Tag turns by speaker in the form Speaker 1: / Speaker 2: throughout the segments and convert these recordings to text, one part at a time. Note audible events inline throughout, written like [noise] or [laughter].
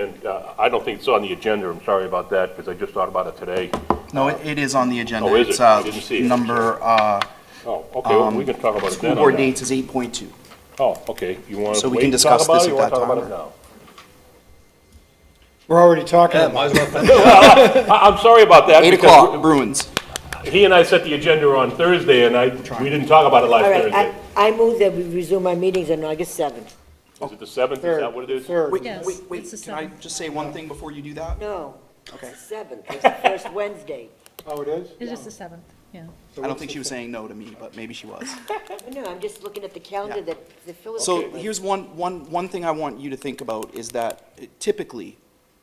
Speaker 1: and uh, I don't think it's on the agenda, I'm sorry about that, because I just thought about it today.
Speaker 2: No, it it is on the agenda.
Speaker 1: Oh, is it?
Speaker 2: It's, uh,
Speaker 1: I didn't see it.
Speaker 2: Number, uh,
Speaker 1: Oh, okay, well,
Speaker 2: Um,
Speaker 1: we can talk about it
Speaker 2: school
Speaker 1: then.
Speaker 2: board
Speaker 1: on that.
Speaker 2: dates is 8.2.
Speaker 1: Oh, okay, you want
Speaker 2: So
Speaker 1: to
Speaker 2: we can
Speaker 1: wait to talk
Speaker 2: discuss
Speaker 1: about
Speaker 2: this
Speaker 1: it, or you want
Speaker 2: at that
Speaker 1: to talk about
Speaker 2: time.
Speaker 1: it now?
Speaker 3: We're already talking about
Speaker 4: Might as well finish it.
Speaker 1: I- I'm sorry about that.
Speaker 2: 8
Speaker 1: because
Speaker 2: o'clock, Bruins.
Speaker 1: He and I set the agenda on Thursday, and I, we didn't talk about it last
Speaker 5: All right, I,
Speaker 1: Thursday.
Speaker 5: I move that we resume our meetings on August 7th.
Speaker 1: Is it the 7th, is
Speaker 3: third.
Speaker 1: that what it is?
Speaker 3: Third.
Speaker 2: Wait,
Speaker 6: Yes,
Speaker 2: wait, wait,
Speaker 6: it's the
Speaker 2: can I
Speaker 6: seventh.
Speaker 2: just say one thing before you do that?
Speaker 5: No,
Speaker 2: Okay.
Speaker 5: it's the 7th, it's the first [laughs] Wednesday.
Speaker 3: Oh, it is?
Speaker 6: It is the seventh, yeah.
Speaker 2: I don't think she was saying no to me, but maybe she was.
Speaker 5: No, I'm just looking at the calendar
Speaker 2: Yeah.
Speaker 5: that the Phillips.
Speaker 2: So here's one, one, one thing I want you to think about is that uh, typically,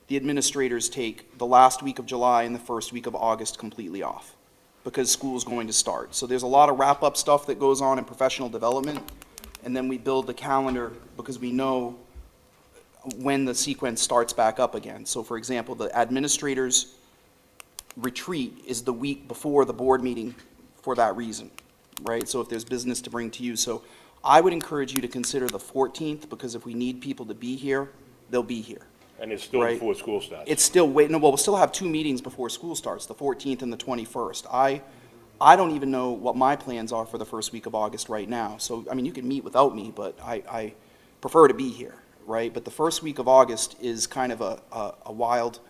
Speaker 2: the administrators take the last week of July and the first week of August completely off because school's going to start. So there's a lot of wrap-up stuff that goes on in professional development. And then we build the calendar because we know when the sequence starts back up again. So for example, the administrators' retreat is the week before the board meeting for that reason, right? So if there's business to bring to you. So I would encourage you to consider the 14th, because if we need people to be here, they'll be here.
Speaker 1: And it's still
Speaker 2: Right.
Speaker 1: before school starts.
Speaker 2: It's still waiting, no, well, we'll still have two meetings before school starts, the 14th and the 21st. I, I don't even know what my plans are for the first week of August right now. So, I mean, you can meet without me, but I, I prefer to be here, right? But the first week of August is kind of a, a- a wild,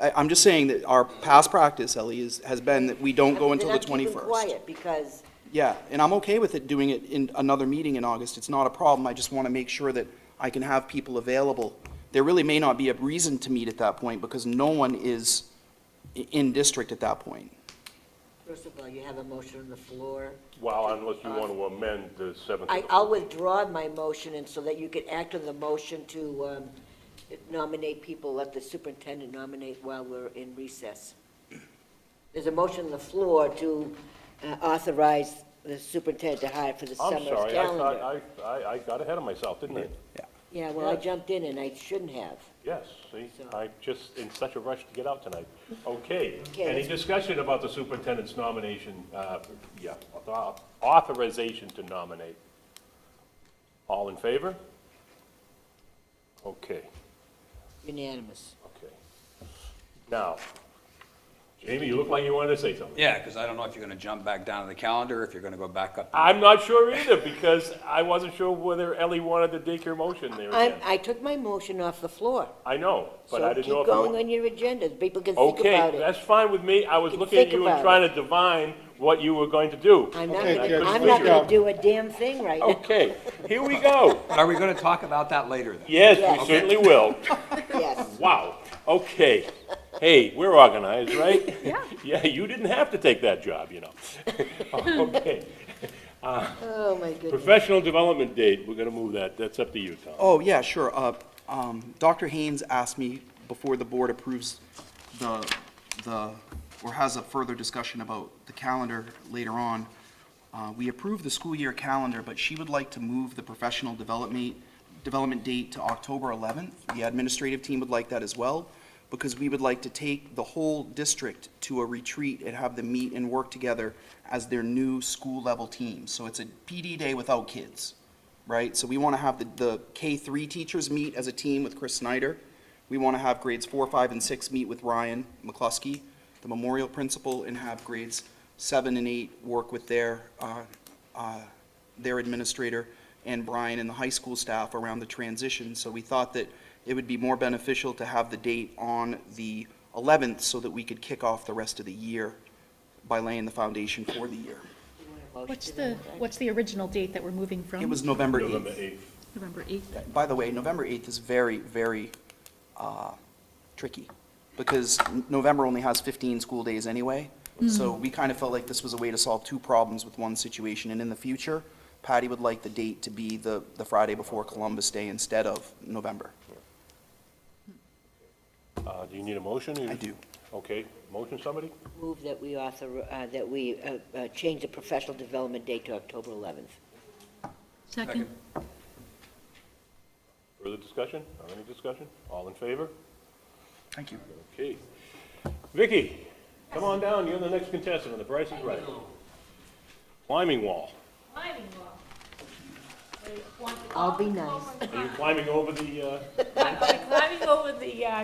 Speaker 2: I, I'm just saying that our past practice, Ellie, is, has been that we don't go until the 21st.
Speaker 5: quiet because
Speaker 2: Yeah, and I'm okay with it doing it in another meeting in August. It's not a problem. I just want to make sure that I can have people available. There really may not be a reason to meet at that point because no one is i- in district at that point.
Speaker 5: First of all, you have a motion on the floor.
Speaker 1: Well, unless you want to amend the 7th.
Speaker 5: I, I'll withdraw my motion and so that you can act on the motion to um, nominate people, let the superintendent nominate while we're in recess. There's a motion on the floor to uh, authorize the superintendent to hire for the
Speaker 1: I'm
Speaker 5: summer's
Speaker 1: sorry, I thought-
Speaker 5: calendar.
Speaker 1: I, I, I got ahead of myself, didn't I?
Speaker 5: Yeah, well, I jumped in and I shouldn't have.
Speaker 1: Yes, see,
Speaker 5: So-
Speaker 1: I'm just in such a rush to get out tonight. Okay,
Speaker 5: Okay.
Speaker 1: any discussion about the superintendent's nomination, uh, yeah, author- authorization to nominate? All in favor? Okay,
Speaker 5: Unanimous.
Speaker 1: okay. Now, Jamie, you look like you wanted to say something.
Speaker 4: Yeah, because I don't know if you're going to jump back down to the calendar, if you're going to go back up.
Speaker 1: I'm not sure either, because I wasn't sure whether Ellie wanted to dig her motion there
Speaker 5: I,
Speaker 1: again.
Speaker 5: I took my motion off the floor.
Speaker 1: I know, but
Speaker 5: So
Speaker 1: I didn't know if you
Speaker 5: Keep going
Speaker 1: were-
Speaker 5: on your agenda, people can think
Speaker 1: Okay,
Speaker 5: about it.
Speaker 1: that's fine with me. I was
Speaker 5: Can
Speaker 1: looking at
Speaker 5: think
Speaker 1: you
Speaker 5: about
Speaker 1: and
Speaker 5: it.
Speaker 1: trying to divine what you were going to do.
Speaker 5: I'm not
Speaker 3: Okay, good.
Speaker 5: gonna, I'm not
Speaker 3: Good
Speaker 5: gonna
Speaker 3: job.
Speaker 5: do a damn thing right now.
Speaker 1: Okay, here we go.
Speaker 4: But are we going to talk about that later then?
Speaker 1: Yes, we
Speaker 5: Yes.
Speaker 1: certainly will.
Speaker 5: Yes,
Speaker 1: Wow, okay. Hey, we're organized, right?
Speaker 6: Yeah.
Speaker 1: [laughs] Yeah, you didn't have to take that job, you know. [laughs] Okay,
Speaker 5: oh my goodness.
Speaker 1: professional development date, we're gonna move that. That's up to you, Tom.
Speaker 2: Oh, yeah, sure. Uh, um, Dr. Haynes asked me before the board approves the, the, or has a further discussion about the calendar later on. Uh, we approved the school year calendar, but she would like to move the professional development, development date to October 11th. The administrative team would like that as well, because we would like to take the whole district to a retreat and have them meet and work together as their new school-level team. So it's a PD day without kids right? So we want to have the, the K-3 teachers meet as a team with Chris Snyder. We want to have grades four, five, and six meet with Ryan McCluskey, the memorial principal, and have grades seven and eight work with their, uh, uh, their administrator and Brian and the high school staff around the transition. So we thought that it would be more beneficial to have the date on the 11th so that we could kick off the rest of the year by laying the foundation for the year.
Speaker 6: What's the, what's the original date that we're moving from?
Speaker 2: It was November 8th.
Speaker 1: November 8th.
Speaker 6: November eighth.
Speaker 2: By the way, November 8th is very, very uh, tricky, because n- November only has 15 school days anyway. So we kind of felt like this was a way to solve two problems with one situation, and in the future, Patty would like the date to be the, the Friday before Columbus Day instead of November.
Speaker 1: Uh, do you need a motion?
Speaker 2: I do.
Speaker 1: Okay, motion, somebody?
Speaker 5: Move that we author, uh, that we uh, uh, change the professional development date to October 11th.
Speaker 6: Second.
Speaker 1: Further discussion? Or any discussion? All in favor?
Speaker 2: Thank you.
Speaker 1: Okay. Vicky, come on down, you're the next contestant on The Price is Right. Climbing wall.
Speaker 7: climbing wall.
Speaker 5: I'll be nice.
Speaker 1: Are you climbing over the, uh?
Speaker 7: [laughs] Climbing over the uh,